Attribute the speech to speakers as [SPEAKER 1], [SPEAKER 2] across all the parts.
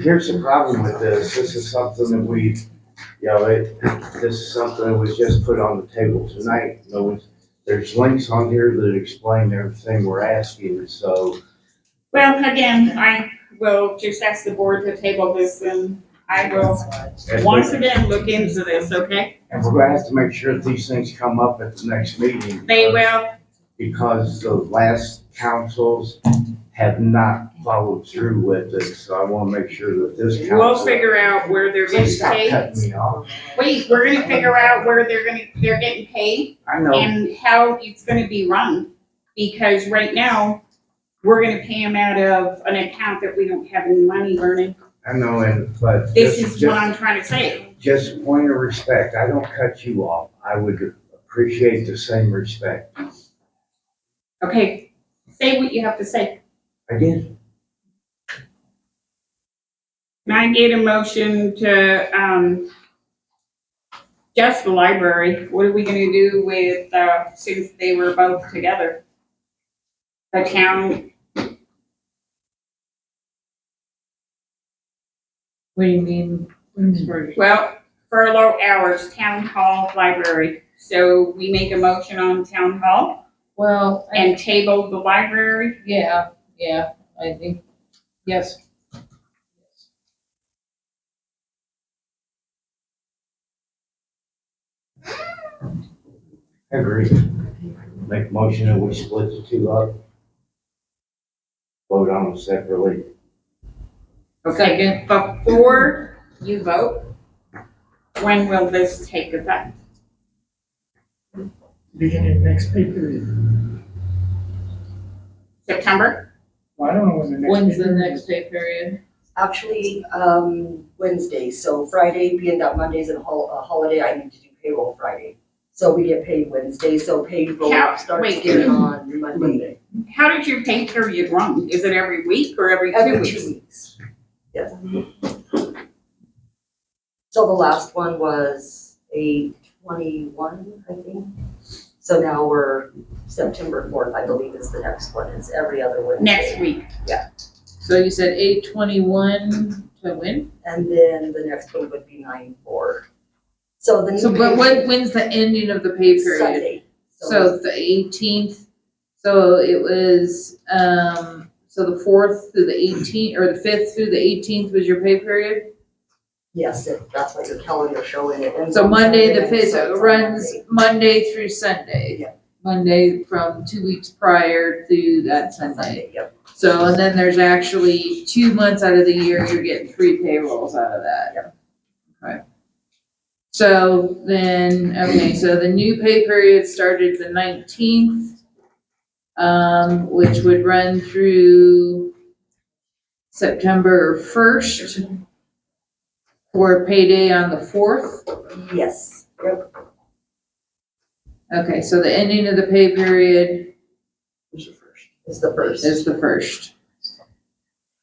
[SPEAKER 1] Here's the problem with this, this is something that we, you know, it, this is something that was just put on the table tonight. No one's, there's links on here that explain everything we're asking, so,
[SPEAKER 2] Well, again, I will just ask the board to table this and I will
[SPEAKER 1] and
[SPEAKER 2] once
[SPEAKER 1] we're
[SPEAKER 2] again look into this, okay?
[SPEAKER 1] and we're gonna have to make sure that these things come up at the next meeting.
[SPEAKER 2] They will,
[SPEAKER 1] Because the last councils have not followed through with it, so I wanna make sure that this council.
[SPEAKER 2] we'll figure out where they're
[SPEAKER 1] Please
[SPEAKER 2] getting
[SPEAKER 1] stop
[SPEAKER 2] paid.
[SPEAKER 1] cutting me off.
[SPEAKER 2] Wait, we're gonna figure out where they're gonna, they're getting paid
[SPEAKER 1] I know,
[SPEAKER 2] and how it's gonna be run. Because right now, we're gonna pay them out of an account that we don't have any money earning.
[SPEAKER 1] I know, and, but.
[SPEAKER 2] This
[SPEAKER 1] just-
[SPEAKER 2] is what
[SPEAKER 1] just-
[SPEAKER 2] I'm trying to say.
[SPEAKER 1] Just a point of respect, I don't cut you off. I would appreciate the same respect.
[SPEAKER 2] Okay, say what you have to say.
[SPEAKER 1] I did.
[SPEAKER 2] And I made a motion to, um, just the library, what are we gonna do with, uh, since they were both together? The town,
[SPEAKER 3] What do you mean? Williamsburg?
[SPEAKER 2] well, furlough hours, town hall, library, so we make a motion on town hall
[SPEAKER 3] Well, I-
[SPEAKER 2] and table the library,
[SPEAKER 3] yeah, yeah, I think, yes.
[SPEAKER 1] I agree. Make a motion and we split the two up. Vote on them separately.
[SPEAKER 2] Okay.
[SPEAKER 3] Second,
[SPEAKER 2] before you vote, when will this take effect?
[SPEAKER 4] beginning of next pay period.
[SPEAKER 2] September?
[SPEAKER 4] Well, I don't know when the next.
[SPEAKER 3] when's
[SPEAKER 4] pay
[SPEAKER 3] the
[SPEAKER 4] period
[SPEAKER 3] next
[SPEAKER 4] is.
[SPEAKER 3] pay period?
[SPEAKER 5] Actually, um, Wednesday, so Friday, being that Monday's a hol- a holiday, I need to do payroll Friday. So we get paid Wednesday, so payroll
[SPEAKER 2] How-
[SPEAKER 5] starts
[SPEAKER 2] wait.
[SPEAKER 5] again on Monday.
[SPEAKER 2] How did your pay period run? Is it every week or every two
[SPEAKER 5] Every
[SPEAKER 2] weeks?
[SPEAKER 5] two weeks. Yes. So the last one was a twenty-one, I think. So now we're September fourth, I believe is the next one. It's every other Wednesday.
[SPEAKER 2] Next week.
[SPEAKER 3] So you said eight twenty-one to when?
[SPEAKER 5] And then the next one would be nine four. So the new.
[SPEAKER 3] So, but
[SPEAKER 5] pay-
[SPEAKER 3] when, when's the ending of the pay period?
[SPEAKER 5] Sunday.
[SPEAKER 3] So the eighteenth, so it was, um, so the fourth through the eighteenth, or the fifth through the eighteenth was your pay period?
[SPEAKER 5] Yes, if that's what your calendar showing it. And
[SPEAKER 3] So
[SPEAKER 5] then
[SPEAKER 3] Monday, the
[SPEAKER 5] Sunday,
[SPEAKER 3] fifth,
[SPEAKER 5] so it's
[SPEAKER 3] it
[SPEAKER 5] on
[SPEAKER 3] runs
[SPEAKER 5] Monday.
[SPEAKER 3] Monday through Sunday.
[SPEAKER 5] Yeah.
[SPEAKER 3] Monday from two weeks prior through that Sunday.
[SPEAKER 5] Sunday, yep.
[SPEAKER 3] So, and then there's actually two months out of the year, you're getting three payrolls out of that. Okay. So then, okay, so the new pay period started the nineteenth, um, which would run through September first, or payday on the fourth.
[SPEAKER 5] Yes, yep.
[SPEAKER 3] Okay, so the ending of the pay period
[SPEAKER 5] It's the first.
[SPEAKER 3] is the first.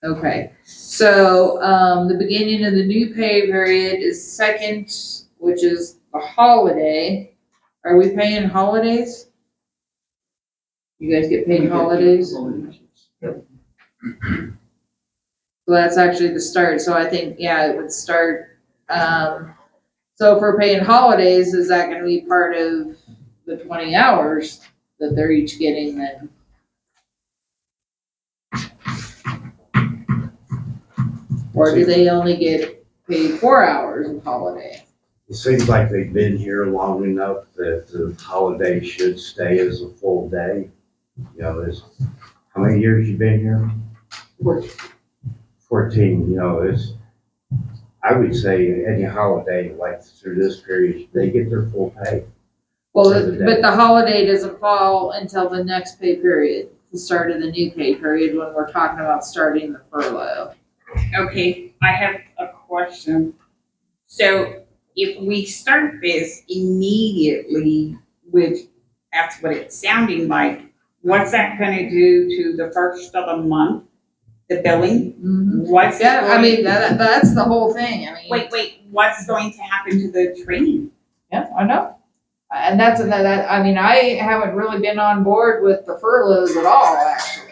[SPEAKER 3] Okay, so, um, the beginning of the new pay period is second, which is a holiday. Are we paying holidays? You guys get paid holidays? Well, that's actually the start, so I think, yeah, it would start, um, so if we're paying holidays, is that gonna be part of the twenty hours that they're each getting then? Or do they only get paid four hours of holiday?
[SPEAKER 1] It seems like they've been here long enough that the holiday should stay as a full day. You know, it's, how many years you been here? Fourteen. Fourteen, you know, it's, I would say any holiday, like through this period, they get their full pay.
[SPEAKER 3] Well,
[SPEAKER 1] Other than-
[SPEAKER 3] but the holiday doesn't fall until the next pay period, the start of the new pay period, when we're talking about starting the furlough.
[SPEAKER 2] Okay, I have a question. So if we start this immediately, which that's what it's sounding like, what's that gonna do to the first of the month, the billing? What's
[SPEAKER 3] Mm-hmm. Yeah, I mean,
[SPEAKER 2] going-
[SPEAKER 3] that, that's the whole thing, I mean.
[SPEAKER 2] Wait, wait, what's going to happen to the training?
[SPEAKER 3] Yeah, I know. And that's, and that, I mean, I haven't really been on board with the furloughs at all, actually.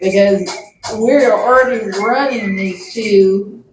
[SPEAKER 3] Because we're already running these two